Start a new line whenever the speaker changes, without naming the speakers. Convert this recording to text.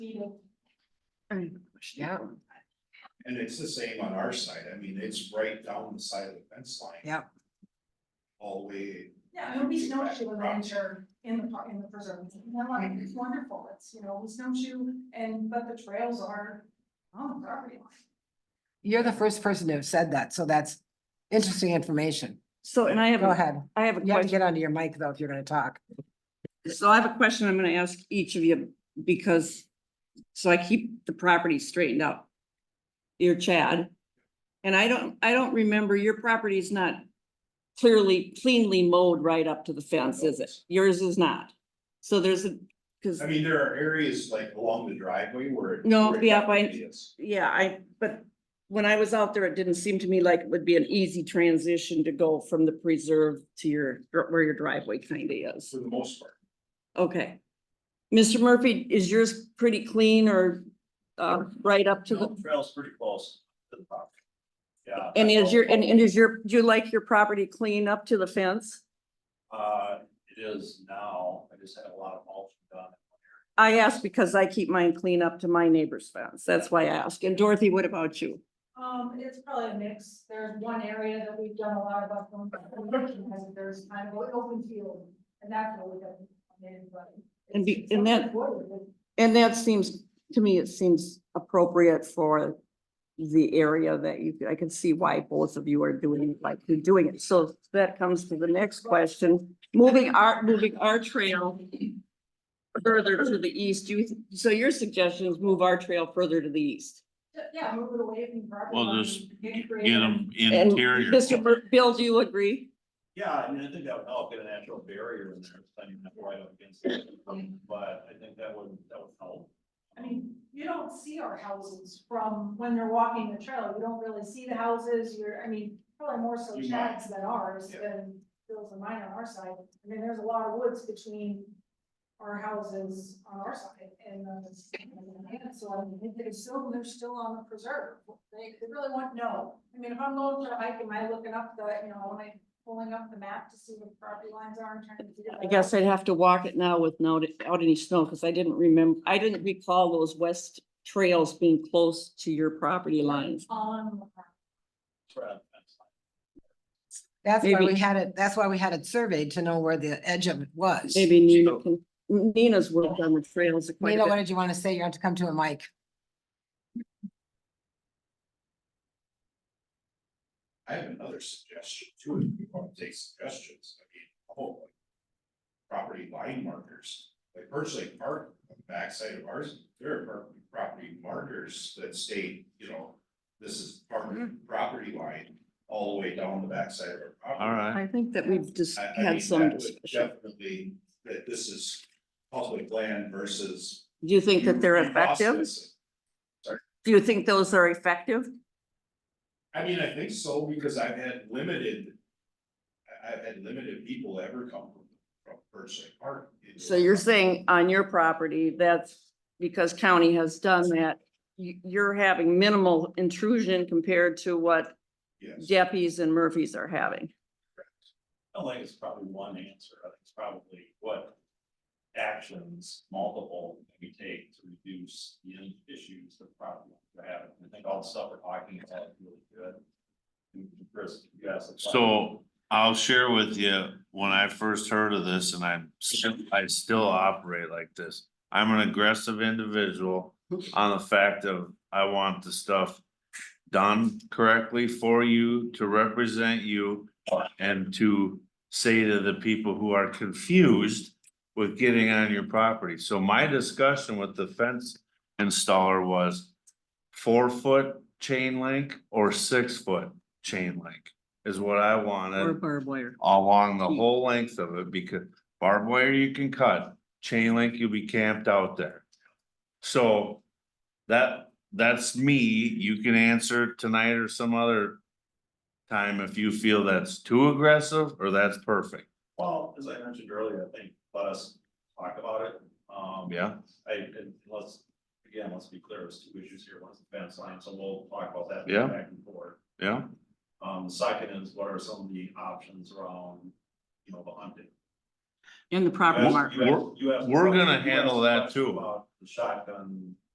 Yeah,
And it's the same on our side, I mean, it's right down the side of the fence line.
yeah.
All the way.
Yeah, it'll be snowshoe adventure in the park, in the preserve, and I like,
Mm-hmm.
it. it's wonderful, it's, you know, snowshoe, and, but the trails are on the property line.
You're the first person to have said that, so that's interesting information.
So, and I have,
Go
a-
ahead.
I have a
You have to
question.
get onto your mic though if you're gonna talk.
So I have a question I'm gonna ask each of you because, so I keep the property straightened out. You're Chad. And I don't, I don't remember, your property is not clearly cleanly mowed right up to the fence, is it? Yours is not. So there's a, because,
I mean, there are areas like along the driveway where. it-
No,
where it
yeah, I-
definitely is.
yeah, I, but when I was out there, it didn't seem to me like it would be an easy transition to go from the preserve to your, where your driveway kind of is.
For the most part,
Okay. Mr. Murphy, is yours pretty clean or uh right up to
No,
the,
trail's pretty close to the property. Yeah.
and is
I-
your, and and is your, do you like your property clean up to the fence?
Uh, it is now, I just had a lot of mulch done.
I ask because I keep mine clean up to my neighbor's fence. That's why I ask. And Dorothy, what about you?
Um, it's probably a mix, there's one area that we've done a lot of, up on- because there's kind of an open field, and that's what we got.
And be- and that- And that seems, to me, it seems appropriate for the area that you, I can see why both of you are doing, like, you're doing it. So that comes to the next question. Moving our, moving our trail further to the east, you, so your suggestion is move our trail further to the east.
Yeah, move it away from. property
Well,
line,
just
get
Get
creative.
them
And
interior.
Mr. Bur- Bill, do you agree?
Yeah, I mean, I think that would help get a natural barrier in there, standing up right up against it, but I think that would, that would help.
I mean, you don't see our houses from when they're walking the trail, you don't really see the houses, you're, I mean, probably more so
You might.
Chad's than ours
Yeah.
than Bill's and mine on our side. I mean, there's a lot of woods between our houses on our side and, uh, and so I mean, if they assume they're still on the preserve, they, they really want to know. I mean, if I'm going for a hike, am I looking up the, you know, am I pulling up the map to see what property lines are and trying to figure that
I
out?
guess I'd have to walk it now with no, without any snow, because I didn't remember, I didn't recall those west trails being close to your property lines.
On,
Right, that's fine.
That's why we
Maybe-
had it, that's why we had it surveyed to know where the edge of it was.
Maybe Nina can, Nina's worked on the trails quite
Nina,
a
what
bit.
did you want to say? You have to come to a mic.
I have another suggestion too, if you want to take suggestions, I mean, oh. like, Property line markers, like personally park, on the backside of ours, there are par- property markers that state, you know. This is property,
Mm-hmm.
property line, all the way down the backside of our property.
All right.
I think that we've just
I- I mean,
had some
that would
discussion.
Definitely, that this is public land versus.
Do you think that they're
you- you lost
effective?
this.
Do you think those are effective?
I mean, I think so, because I've had limited. I, have had limited people ever come from, from Birchlight Park. into-
So you're saying on your property, that's because county has done that. You, you're having minimal intrusion compared to what
Yes,
Geppies and Murphys are having.
I don't think it's probably one answer, I think it's probably what actions multiple can we take to reduce the in- issues that probably we're having. I think all the stuff we're talking about is really good. And Chris, you asked. the question.
So I'll share with you, when I first heard of this and I'm, still- I still operate like this. I'm an aggressive individual on the fact of I want the stuff done correctly for you, to represent you. And to say to the people who are confused with getting on your property. So my discussion with the fence installer was four foot chain link or six foot chain link is what I
Or
wanted
barbed wire.
along the
Hmm.
whole length of it, because barbed wire you can cut, chain link, you'll be camped out there. So that, that's me, you can answer tonight or some other time if you feel that's too aggressive or that's perfect,
Well, as I mentioned earlier, I think let us talk about it. Um,
yeah?
I, and let's, again, let's be clear, there's two issues here, one's the fence line, so we'll talk about that.
Yeah.
Back and forth.
Yeah,
Um, second is what are some of the options around, you know, the hunting?
In the
You
property
asked-
mark.
you asked- you asked-
We're- we're
you
gonna
asked
handle
the
that
question
too.
about The shotgun